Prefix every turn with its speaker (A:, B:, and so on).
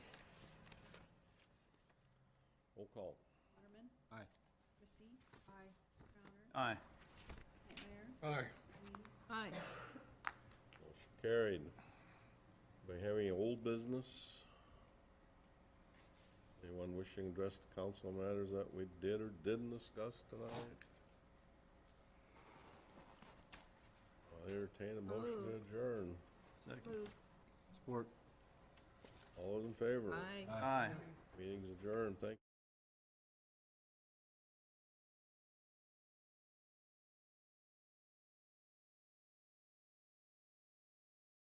A: Roll call.
B: Waterman.
C: Aye.
B: Christie. Aye. Crowner.
C: Aye.
B: Knightmeyer.
D: Aye.
B: Weems.
E: Aye.
A: Motion carried. By having old business? Anyone wishing to address the council on matters that we did or didn't discuss tonight? I'll entertain a motion to
E: moved.
A: adjourn.
C: Second.
E: Move.
C: Support.
A: All those in favor?
E: Aye.
C: Aye.
A: Meeting's adjourned. Thank